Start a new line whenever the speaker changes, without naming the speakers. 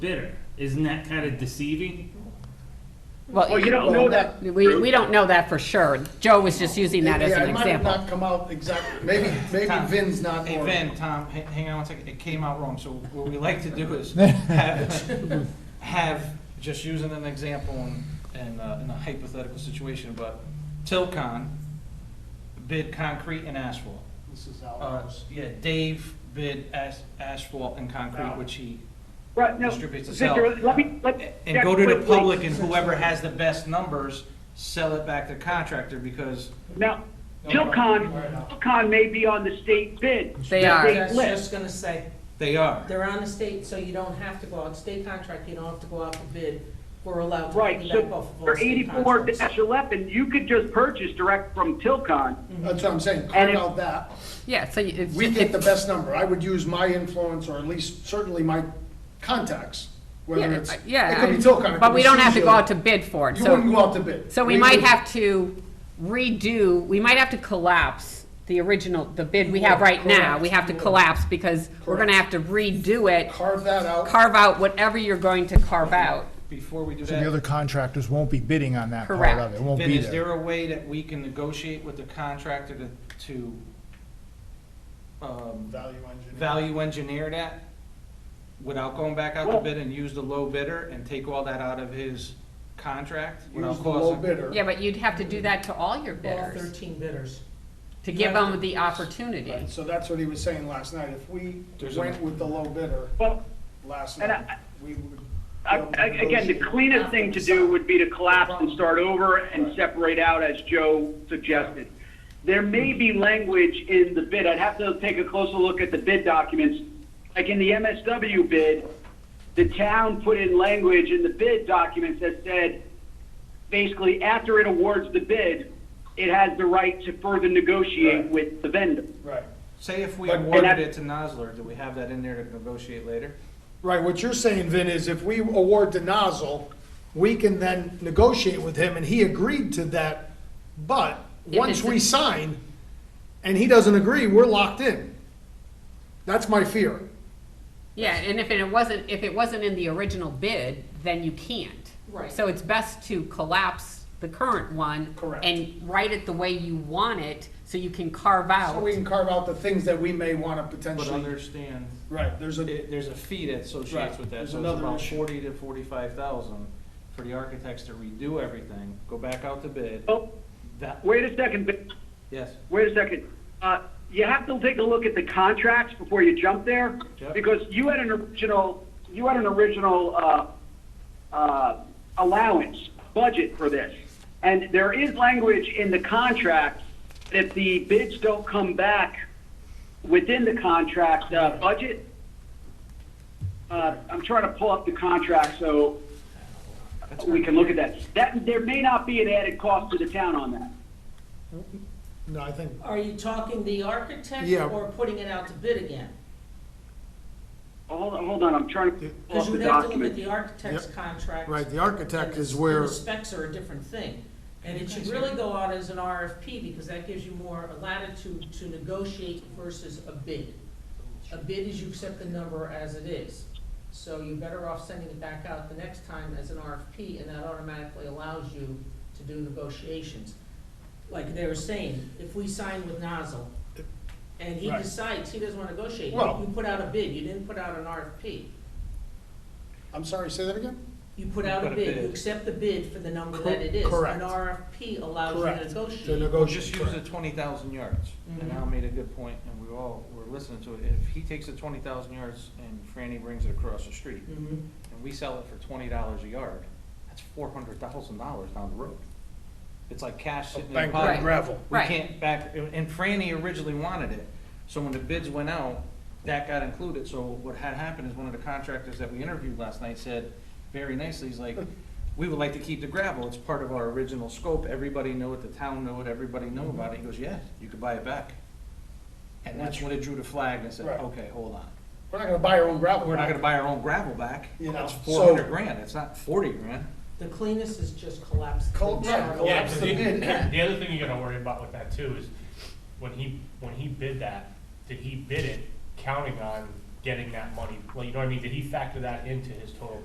bidder. Isn't that kind of deceiving?
Well,
Oh,
Well, you don't know that.
we, we don't know that for sure. Joe was just using that as
Yeah,
an
it might have
example.
not come out exactly, maybe, maybe
Tom.
Vin's not.
Hey,
or-
Vin, Tom, h- hang on one second, it came out wrong, so what we like to do is have, have, just using an example in, in uh, in a hypothetical situation, but Tilcon bid concrete and asphalt.
This is
Uh,
ours.
Yeah, Dave bid as- asphalt and concrete, which he
Right, no,
distributes to sell.
Victor, let me, let.
And go to the public and whoever has the best numbers, sell it back to contractor because
Now, Tilcon, Tilcon may be on the state bid.
They
the
are.
state
I was
list.
just gonna say,
they are.
they're on the state, so you don't have to go out, state contract, you don't have to go out for bid. We're allowed to
Right,
piggyback
so
off of all
for
state
eighty-four
contracts.
eleven, you could just purchase direct from Tilcon.
That's what I'm saying, carve
if-
out that.
Yeah, so you- it's,
We get the
it's,
best number. I would use my influence, or at least certainly my contacts, whether
yeah,
it's, it
yeah.
could be Tilcon. it
But
could
we
be
don't have to go
Suzhou.
out to bid for it,
You wouldn't
so,
go out to bid.
so we might
would-
have to redo, we might have to collapse the original, the bid we have right now. We have to collapse because we're gonna have to redo it,
Carve that out.
carve out whatever you're going to carve out.
Before we do
So the
that,
other contractors won't be bidding on that part
Correct.
of it. It won't
Then
be
is
there.
there a way that we can negotiate with the contractor to, to, um,
Value engineer.
value engineer that? Without going back out to
Well-
bid and use the low bidder and take all that out of his contract? without
Use the low
causing-
bidder.
Yeah, but you'd have to do that to all your
All
bidders,
thirteen bidders.
to give them the opportunity.
Right, So that's what he was saying last night. If we
There's a-
went with the low bidder
Well,
last
And
night, we would.
I- I- again, the cleanest thing to do would be to collapse and start over and separate out, as Joe suggested. There may be language in the bid, I'd have to take a closer look at the bid documents. Like in the MSW bid, the town put in language in the bid documents that said, basically, after it awards the bid, it has the right to further negotiate
Right.
with the vendor.
Right.
Say if we
But- and
awarded
that-
it to Nosler, do we have that in there to negotiate later?
Right, what you're saying, Vin, is if we award to Nozzle, we can then negotiate with him, and he agreed to that, but
If
once
it's a-
we sign, and he doesn't agree, we're locked in. That's my fear.
Yeah, and if it wasn't, if it wasn't in the original bid, then you can't.
Right.
So it's best to collapse the current one.
Correct.
And write it the way you want it, so you can carve out.
So we can carve out the things that we may want to
But
potentially,
understand,
right, there's a,
it- there's a fee that associates
Right,
with that,
there's
so it's
another
about
issue.
forty to forty-five thousand for the architects to redo everything, go back out to bid,
Oh,
that,
wait a second, Vic.
yes.
Wait a second. Uh, You have to take a look at the contracts before you jump there,
Yep.
because you had an original, you had an original uh, uh, allowance, budget for this. And there is language in the contract, that if the bids don't come back within the contract uh, budget, uh, I'm trying to pull up the contract so we can look at that. That, there may not be an added cost to the town on that.
no, I think,
Are you talking the architect
Yeah.
or putting it out to bid again?
Hold on, hold on, I'm trying to pull
Because
up
you
the
would have to look at
document.
the architect's
Yep.
contract.
right, the architect
and-
is
and
where,
the specs are a different thing. And it should really go out as an RFP, because that gives you more latitude to negotiate versus a bid. A bid is you accept the number as it is. So you're better off sending it back out the next time as an RFP, and that automatically allows you to do negotiations. Like they were saying, if we sign with Nozzle, and he
Right.
decides he doesn't want to negotiate,
Well-
you put out a bid, you didn't put out an RFP.
I'm sorry, say that again?
You put out a bid, you accept the bid for the number that it is.
Correct.
An RFP allows you
Correct.
to
To
negotiate.
Well, just use the
correct.
twenty thousand yards, and
Mhm.
Al made a good point, and we all were listening to it, if he takes the twenty thousand yards and Franny brings it across the street,
Mhm.
and we sell it for twenty dollars a yard, that's four hundred thousand dollars down the road. It's like cash sitting in the
Bankrupt
Right.
pot.
gravel.
We
Right.
can't back, and Franny originally wanted it, so when the bids went out, that got included, so what had happened is one of the contractors that we interviewed last night said, very nicely, he's like, we would like to keep the gravel, it's part of our original scope, everybody knew it, the town knew it, everybody knew
Mm-hmm.
about it, he goes, yeah, you could buy it back. And that's when it drew the flag and said,
Right.
okay, hold on,
We're not gonna buy our own gravel.
we're not gonna buy our own gravel back,
You know,
it's
so-
four hundred grand, it's not forty grand.
The cleanest is just collapse. the
Col-
chart.
right,
Yeah,
collapse
'cause
the
the
bid.
the other thing you gotta worry about with that too is, when he, when he bid that, did he bid it counting on getting that money, well, you know what I mean, did he factor that into his total